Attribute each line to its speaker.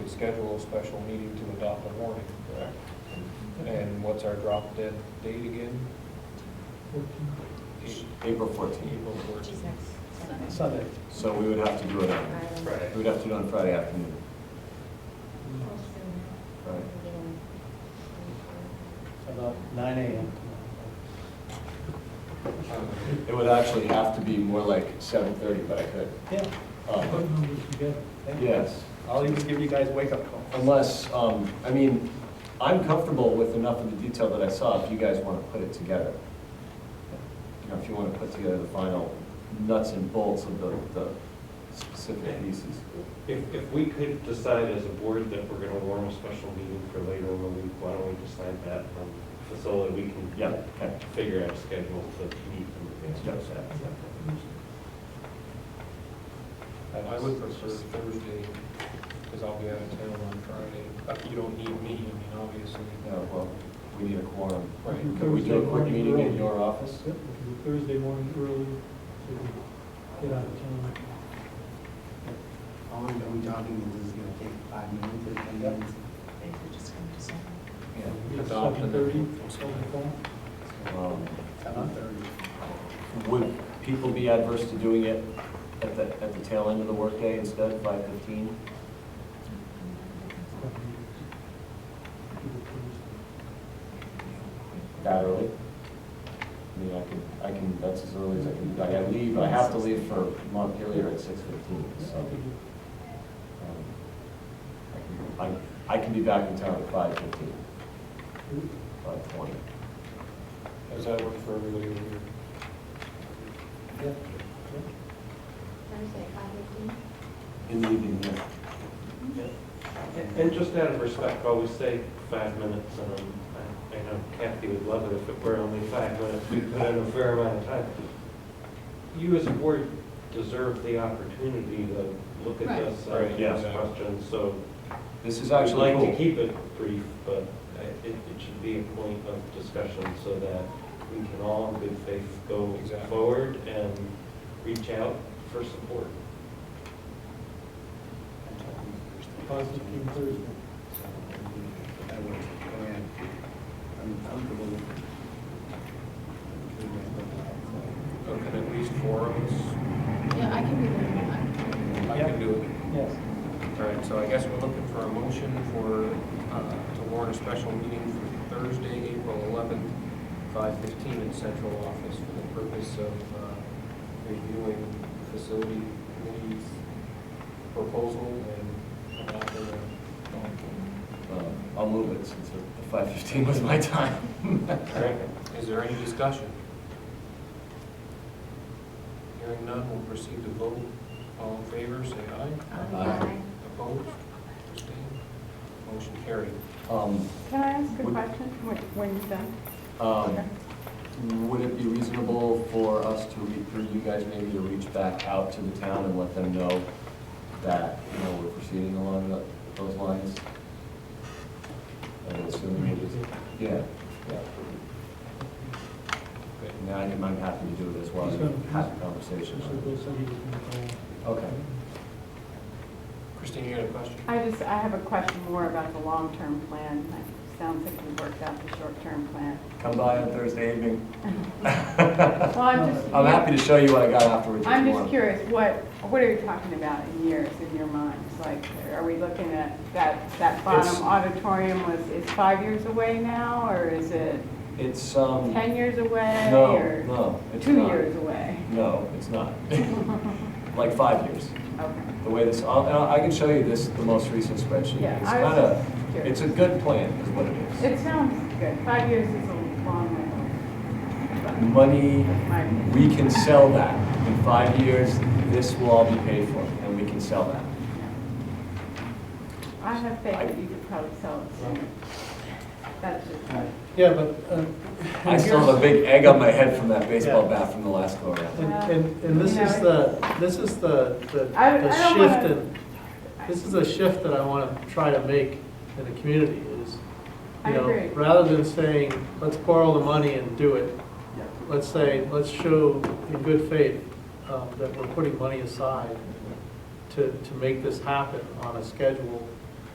Speaker 1: schedule a special meeting to adopt a warning, correct? And what's our drop dead date again? Eight-
Speaker 2: April 14th.
Speaker 1: April fourteenth.
Speaker 3: Sunday.
Speaker 2: So we would have to do it on,
Speaker 1: Friday.
Speaker 2: we would have to do it on Friday afternoon. Right.
Speaker 3: About nine AM.
Speaker 1: Um,
Speaker 2: It would actually have to be more like 7:30, but I could.
Speaker 3: Yeah.
Speaker 2: um, Yes,
Speaker 3: Oh. I'll even give you guys wake-up call.
Speaker 2: unless, um, I mean, I'm comfortable with enough of the detail that I saw if you guys want to put it together. You know, if you want to put together the final nuts and bolts of the, the specific pieces.
Speaker 4: If, if we could decide as a board that we're gonna warn a special meeting for later in the week, why don't we decide that um, so that we can
Speaker 2: Yeah, okay.
Speaker 4: figure out a schedule to meet in advance of that?
Speaker 1: I would prefer Thursday, because I'll be out of town on Friday. Uh, You don't need me, I mean, obviously.
Speaker 2: Yeah, well, we need a quorum.
Speaker 1: Right.
Speaker 2: Can we do a quick meeting in your office?
Speaker 5: Thursday morning early, so we get out of town.
Speaker 6: All I'm talking is this is gonna take five minutes or ten
Speaker 3: Yep.
Speaker 6: minutes.
Speaker 2: Yeah.
Speaker 1: Adopt
Speaker 5: Seven
Speaker 1: and-
Speaker 5: thirty, seven o'clock.
Speaker 2: Um,
Speaker 6: Seven thirty.
Speaker 2: Would people be adverse to doing it at the, at the tail end of the workday instead of five fifteen? That early? I mean, I can, I can, that's as early as I can, I gotta leave, I have to leave for Montpelier at six fifteen, so. um, I, can- I I can be back in town at five fifteen, five twenty.
Speaker 1: Does that work for everybody over here?
Speaker 7: Thursday, five fifteen.
Speaker 2: In the evening, yeah.
Speaker 4: And just out of respect, always say five minutes, and um, I I know Kathy would love it if it were only five minutes, we put in a fair amount of time. You as a board deserve the opportunity to look at
Speaker 8: Right.
Speaker 4: this,
Speaker 1: Right,
Speaker 4: uh,
Speaker 2: yeah.
Speaker 4: ask questions, so
Speaker 2: This is
Speaker 4: I'd
Speaker 2: actually
Speaker 4: like to
Speaker 2: cool.
Speaker 4: keep it brief, but I- it, it should be a point of discussion so that we can all in good faith go
Speaker 1: Exactly.
Speaker 4: forward and reach out for support.
Speaker 5: Five fifteen Thursday.
Speaker 6: That works. Go ahead. I'm comfortable. with
Speaker 1: Or can at least four of us?
Speaker 8: Yeah, I can be there.
Speaker 1: I
Speaker 3: Yeah.
Speaker 1: can do it.
Speaker 3: Yes.
Speaker 1: All right, so I guess we're looking for a motion for, uh, to warn a special meeting for Thursday, April 11th, 5:15 in central office for the purpose of uh, reviewing facility committee's proposal and adopting a
Speaker 2: Um, I'll move it since the five fifteen was my time.
Speaker 1: All right, is there any discussion? Hearing none, we'll proceed to vote. All in favor, say aye. Opposed? Abstained? Motion carried.
Speaker 2: Um,
Speaker 9: Can I ask a
Speaker 2: Would-
Speaker 9: question when when you're done?
Speaker 2: Um,
Speaker 9: Okay.
Speaker 2: Would it be reasonable for us to, re- for you guys maybe to reach back out to the town and let them know that, you know, we're proceeding along tho- those lines? And assuming it is, yeah, yeah.
Speaker 1: Okay.
Speaker 2: And I am happy to do it as well,
Speaker 5: He's gonna-
Speaker 2: have a conversation.
Speaker 5: So we'll send you the-
Speaker 2: Okay.
Speaker 1: Christine, you had a question?
Speaker 9: I just, I have a question more about the long-term plan. It sounds like we worked out the short-term plan.
Speaker 2: Come by on Thursday evening.
Speaker 9: Well, I'm just.
Speaker 2: I'm happy to show you what I got afterwards. if
Speaker 9: I'm
Speaker 2: you
Speaker 9: just
Speaker 2: want.
Speaker 9: curious, what, what are we talking about in years in your minds? Like, are we looking at that, that
Speaker 2: It's-
Speaker 9: bottom auditorium was, is five years away now, or is it
Speaker 2: It's, um,
Speaker 9: 10 years away?
Speaker 2: no,
Speaker 9: or
Speaker 2: no, it's
Speaker 9: Two
Speaker 2: not.
Speaker 9: years away?
Speaker 2: No, it's not. Like five years.
Speaker 9: Okay.
Speaker 2: The way this, I'll- and I I can show you this, the most recent spreadsheet.
Speaker 9: Yeah,
Speaker 2: It's
Speaker 9: I was
Speaker 2: kind of,
Speaker 9: just
Speaker 2: it's
Speaker 9: curious.
Speaker 2: a good plan, is what it is.
Speaker 9: It sounds good. Five years is a long
Speaker 2: Money,
Speaker 9: way, my opinion.
Speaker 2: we can sell that. In five years, this will all be paid for, and we can sell that.
Speaker 9: I have faith that you could probably sell it sooner. That's just.
Speaker 3: Yeah, but. uh,
Speaker 2: I still have a big egg on my head from that baseball
Speaker 3: Yeah.
Speaker 2: bat from the last go around.
Speaker 3: And, and- and this is the, this is the, the
Speaker 9: I- I
Speaker 3: the
Speaker 9: don't
Speaker 3: shift
Speaker 9: wanna-
Speaker 3: in, this is a shift that I want to try to make in the community is,
Speaker 9: I
Speaker 3: you know,
Speaker 9: agree.
Speaker 3: rather than saying, let's borrow the money and do it, let's say, let's show in good faith um, that we're putting money aside to, to make this happen on a schedule